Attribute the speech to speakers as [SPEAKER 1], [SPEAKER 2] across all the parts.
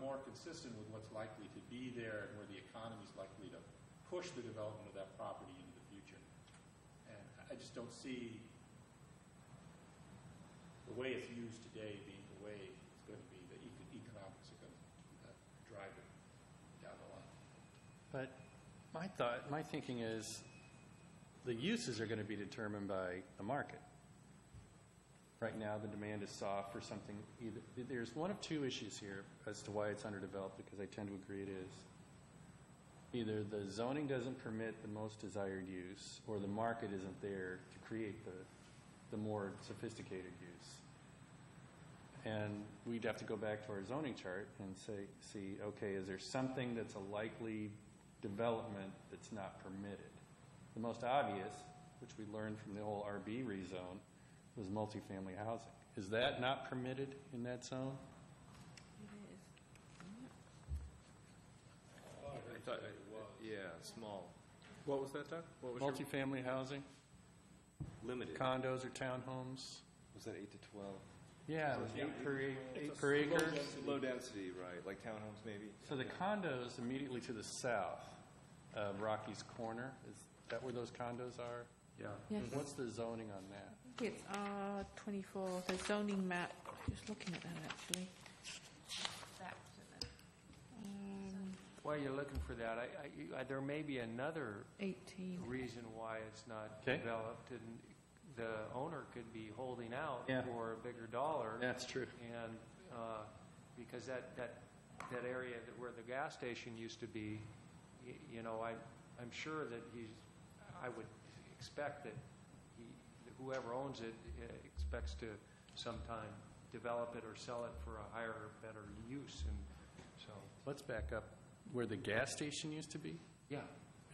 [SPEAKER 1] more consistent with what's likely to be there and where the economy's likely to push the development of that property into the future. And I- I just don't see the way it's used today being the way it's going to be, the eco- economics are going to drive it down the line.
[SPEAKER 2] But my thought, my thinking is, the uses are going to be determined by the market. Right now, the demand is soft for something, either, there's one of two issues here as to why it's underdeveloped, because I tend to agree it is. Either the zoning doesn't permit the most desired use, or the market isn't there to create the, the more sophisticated use. And we'd have to go back to our zoning chart and say, see, okay, is there something that's a likely development that's not permitted? The most obvious, which we learned from the whole RB rezone, was multifamily housing. Is that not permitted in that zone?
[SPEAKER 3] Oh, I thought it was. Yeah, small. What was that, Doug? What was your?
[SPEAKER 2] Multifamily housing,
[SPEAKER 3] Limited.
[SPEAKER 2] condos or townhomes?
[SPEAKER 3] Was that eight to twelve?
[SPEAKER 2] Yeah, it was eight per, ac- eight per
[SPEAKER 3] Low
[SPEAKER 2] acre.
[SPEAKER 3] density. Low density, right, like townhomes maybe?
[SPEAKER 2] So the condos immediately to the south of Rocky's Corner, is that where those condos are?
[SPEAKER 1] Yeah.
[SPEAKER 4] Yes,
[SPEAKER 2] What's the zoning on that?
[SPEAKER 4] it's R twenty-four, the zoning map, just looking at that actually. Um,
[SPEAKER 5] While you're looking for that, I- I, you- I, there may be another
[SPEAKER 4] Eighteen.
[SPEAKER 5] reason why it's not
[SPEAKER 2] Okay.
[SPEAKER 5] developed, and the owner could be holding out
[SPEAKER 2] Yeah.
[SPEAKER 5] for a bigger dollar.
[SPEAKER 2] That's true.
[SPEAKER 5] And, uh, because that, that, that area that where the gas station used to be, y- you know, I, I'm sure that he's, I would expect that he, that whoever owns it uh, expects to sometime develop it or sell it for a higher, better use, and so,
[SPEAKER 2] Let's back up. Where the gas station used to be?
[SPEAKER 5] yeah.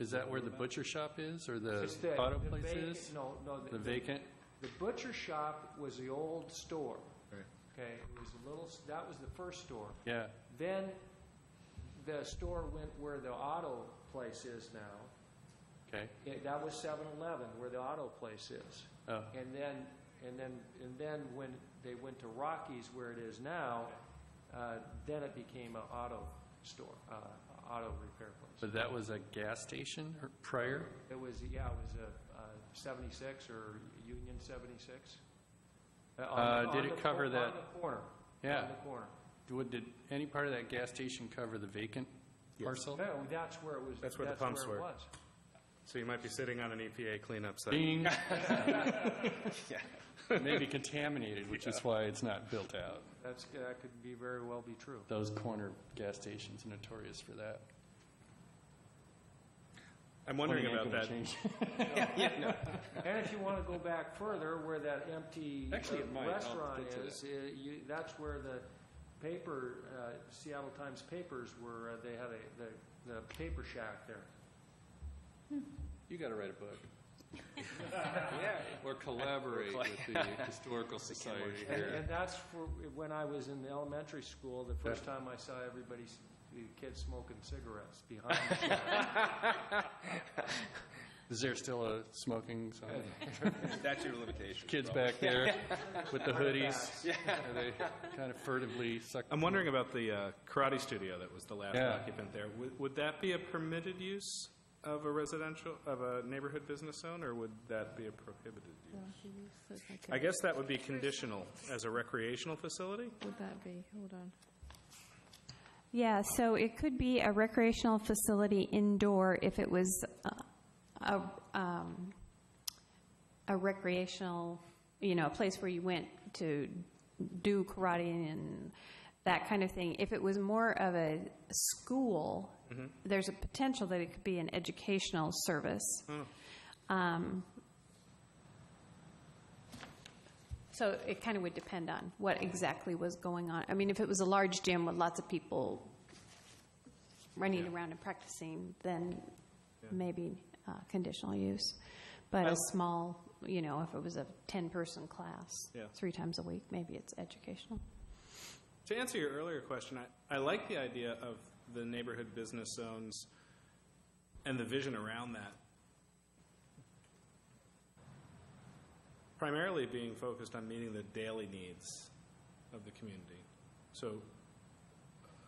[SPEAKER 2] Is that where the butcher shop is or the
[SPEAKER 5] It's the-
[SPEAKER 2] auto
[SPEAKER 5] the
[SPEAKER 2] place
[SPEAKER 5] vacant-
[SPEAKER 2] is?
[SPEAKER 5] No, no.
[SPEAKER 2] The vacant?
[SPEAKER 5] The butcher shop was the old store. Okay, it was a little, s- that was the first store.
[SPEAKER 2] Yeah,
[SPEAKER 5] Then the store went where the auto place is now.
[SPEAKER 2] okay.
[SPEAKER 5] It- That was 7-Eleven, where the auto place is.
[SPEAKER 2] Oh,
[SPEAKER 5] And then, and then, and then when they went to Rockies, where it is now, uh, then it became an auto store, uh, auto repair place.
[SPEAKER 2] but that was a gas station or- prior?
[SPEAKER 5] It was, yeah, it was a uh, 76 or Union 76. Uh, on the-
[SPEAKER 2] Uh, did
[SPEAKER 5] on
[SPEAKER 2] it
[SPEAKER 5] the
[SPEAKER 2] cover
[SPEAKER 5] cor-
[SPEAKER 2] that-
[SPEAKER 5] On the corner.
[SPEAKER 2] Yeah.
[SPEAKER 5] On the corner.
[SPEAKER 2] Would, did any part of that gas station cover the vacant parcel?
[SPEAKER 5] No, that's where it was.
[SPEAKER 6] That's where the pumps
[SPEAKER 5] it
[SPEAKER 6] were.
[SPEAKER 5] was.
[SPEAKER 6] So you might be sitting on an EPA cleanup site.
[SPEAKER 2] Ding. Maybe contaminated, which is why it's not built out.
[SPEAKER 5] That's, that could be very well be true.
[SPEAKER 2] Those corner gas stations are notorious for that.
[SPEAKER 6] I'm wondering
[SPEAKER 2] Ain't
[SPEAKER 6] about
[SPEAKER 2] gonna
[SPEAKER 6] that.
[SPEAKER 2] change.
[SPEAKER 5] And if you want to go back further, where that empty uh,
[SPEAKER 2] Actually, it might. I'll
[SPEAKER 5] restaurant
[SPEAKER 2] get to that.
[SPEAKER 5] is, uh, you, that's where the paper, uh, Seattle Times papers were, uh, they had a, the, the paper shack there.
[SPEAKER 2] You got to write a book. Or collaborate with the Historical Society
[SPEAKER 5] And,
[SPEAKER 2] here.
[SPEAKER 5] and that's for, when I was in elementary school, the first time I saw everybody, s- the kids smoking cigarettes behind the shack.
[SPEAKER 2] Is there still a smoking zone?
[SPEAKER 3] That's your limitation.
[SPEAKER 2] Kids back there with the hoodies. And They kind of furtively suck.
[SPEAKER 6] I'm wondering about the uh, karate studio that was the last
[SPEAKER 2] Yeah.
[SPEAKER 6] occupant there. Would, would that be a permitted use of a residential, of a neighborhood business zone, or would that be a prohibited use? I guess that would be conditional as a recreational facility?
[SPEAKER 4] Would that be, hold on.
[SPEAKER 7] Yeah, so it could be a recreational facility indoor if it was uh, a, um, a recreational, you know, a place where you went to do karate and that kind of thing. If it was more of a school, there's a potential that it could be an educational service. Um, So it kind of would depend on what exactly was going on. I mean, if it was a large gym with lots of people running around and practicing, then maybe uh, conditional use. But a small, you know, if it was a 10-person class,
[SPEAKER 6] Yeah.
[SPEAKER 7] three times a week, maybe it's educational.
[SPEAKER 6] To answer your earlier question, I, I like the idea of the neighborhood business zones and the vision around that. Primarily being focused on meeting the daily needs of the community. So